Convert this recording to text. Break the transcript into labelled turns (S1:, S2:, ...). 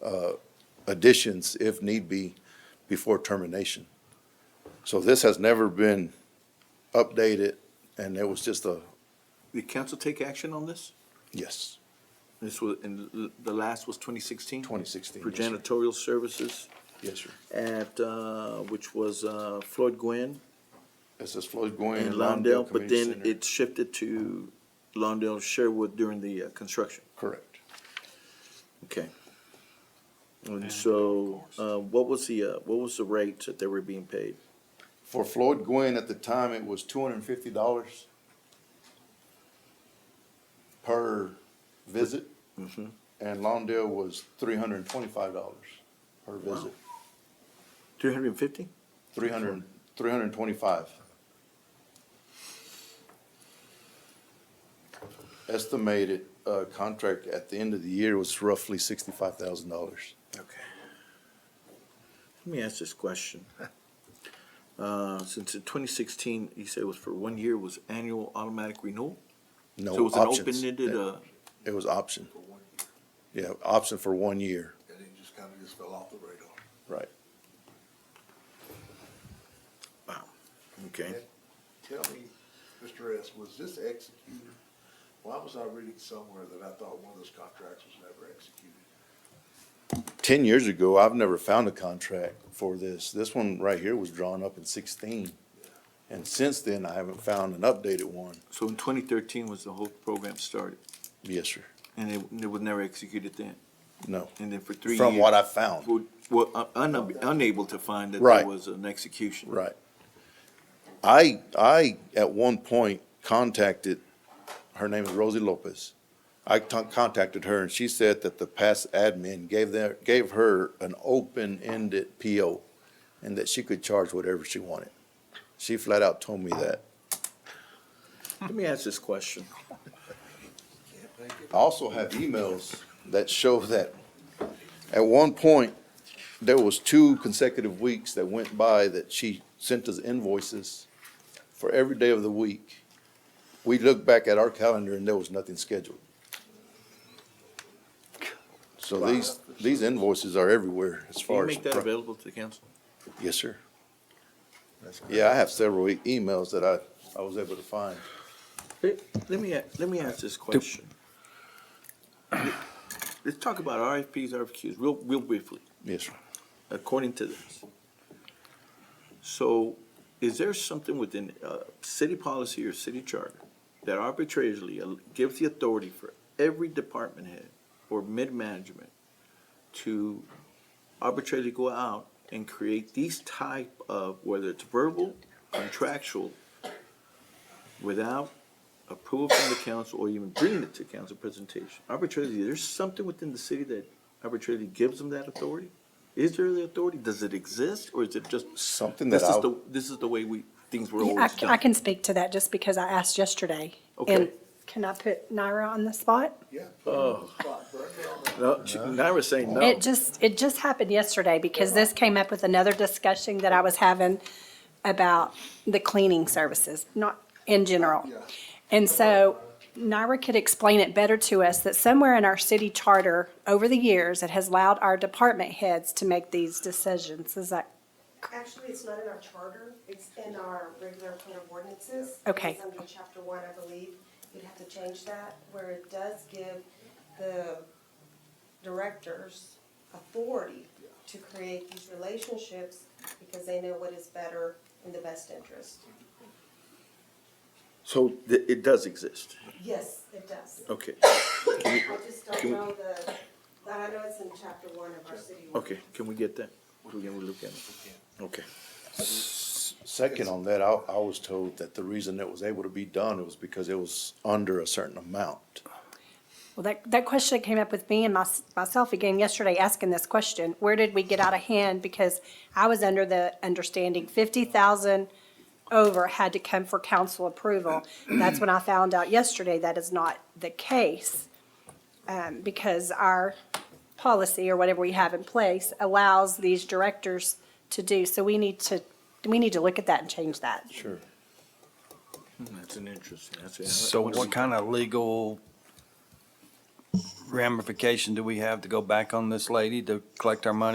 S1: additions if need be before termination. So this has never been updated and it was just a,
S2: Did council take action on this?
S1: yes,
S2: This was, and the- the last was twenty sixteen?
S1: 2016,
S2: For
S1: yes, sir.
S2: janitorial services
S1: yes, sir.
S2: at, uh, which was, uh, Floyd Gwen
S1: It says Floyd Goin.
S2: and
S1: Lawndale
S2: Lawndale, but
S1: Community
S2: then
S1: Center.
S2: it shifted to Lawndale Sherwood during the, uh, construction.
S1: Correct.
S2: Okay. And so, uh, what was the, uh, what was the rate that they were being paid?
S1: For Floyd Goin, at the time, it was two hundred and fifty dollars per visit.
S2: Mm-hmm.
S1: And Lawndale was three hundred and twenty-five dollars per visit,
S2: Three hundred and fifty?
S1: three hundred, three hundred and twenty-five. Estimated, uh, contract at the end of the year was roughly sixty-five thousand dollars.
S2: Okay. Let me ask this question. Uh, since in twenty sixteen, you said it was for one year, was annual automatic renewal?
S1: No
S2: So it was an
S1: options.
S2: open-ended, uh,
S1: It was option, yeah, option for one year,
S3: And it just kind of just fell off the radar.
S1: right.
S2: okay.
S3: Tell me, Mr. S, was this executed? Why was I reading somewhere that I thought one of those contracts was never executed?
S1: ten years ago, I've never found a contract for this. This one right here was drawn up in sixteen. And since then, I haven't found an updated one.
S2: So in twenty thirteen was the whole program started,
S1: Yes, sir.
S2: and it, it was never executed then,
S1: No.
S2: and then for three years.
S1: From what I found.
S2: Well, Well, un- unable to find that there
S1: Right.
S2: was an execution.
S1: Right. I, I, at one point, contacted, her name is Rosie Lopez. I con- contacted her and she said that the past admin gave their, gave her an open-ended PO and that she could charge whatever she wanted. She flat out told me that.
S2: Let me ask this question.
S1: I also have emails that show that at one point, there was two consecutive weeks that went by that she sent us invoices for every day of the week. We looked back at our calendar and there was nothing scheduled. So these, these invoices are everywhere as
S2: Can you
S1: far as.
S2: make that available to the council?
S1: Yes, sir. Yeah, I have several e- emails that I, I was able to find.
S2: Let let me, a- let me ask this question. Let's talk about RFPs, RFQs, real, real briefly,
S1: Yes, sir.
S2: according to this. So is there something within, uh, city policy or city charter that arbitrarily al- gives the authority for every department head or mid-management to arbitrarily go out and create these type of, whether it's verbal, contractual, without approval from the council or even bringing it to council presentation. Arbitrarily, there's something within the city that arbitrarily gives them that authority? Is there the authority? Does it exist or is it just?
S1: Something that
S2: This is
S1: I-
S2: the, this is the way we, things were
S4: Yeah, I
S2: always
S4: can, I
S2: done.
S4: can speak to that just because I asked yesterday.
S2: Okay.
S4: And can I put Naira on the spot?
S3: Yeah. put it on the spot, but I got on that.
S2: No, she- Naira's saying no.
S4: It just, it just happened yesterday because this came up with another discussion that I was having about the cleaning services, not in general. And so Naira could explain it better to us that somewhere in our city charter, over the years, it has allowed our department heads to make these decisions. Is that
S5: Actually, it's not in our charter, it's in our regular code of ordinances.
S4: Okay.
S5: It's under chapter one, I believe, you'd have to change that, where it does give the directors authority to create these relationships, because they know what is better in the best interest.
S2: So th- it does exist.
S5: Yes, it does.
S2: Okay,
S5: I just don't know the, but I know it's in chapter one of our city.
S2: okay. Can we get that? Can we look at it? Okay.
S1: Second on that, I, I was told that the reason it was able to be done was because it was under a certain amount.
S4: Well, that, that question came up with me and my, myself again yesterday asking this question. Where did we get out of hand? Because I was under the understanding fifty thousand over had to come for council approval. That's when I found out yesterday that is not the case. Um, because our policy or whatever we have in place allows these directors to do. So we need to, we need to look at that and change that.
S1: Sure.
S2: That's an interesting, that's. a-
S6: So what kind of legal ramification do we have to go back on this lady to collect our money?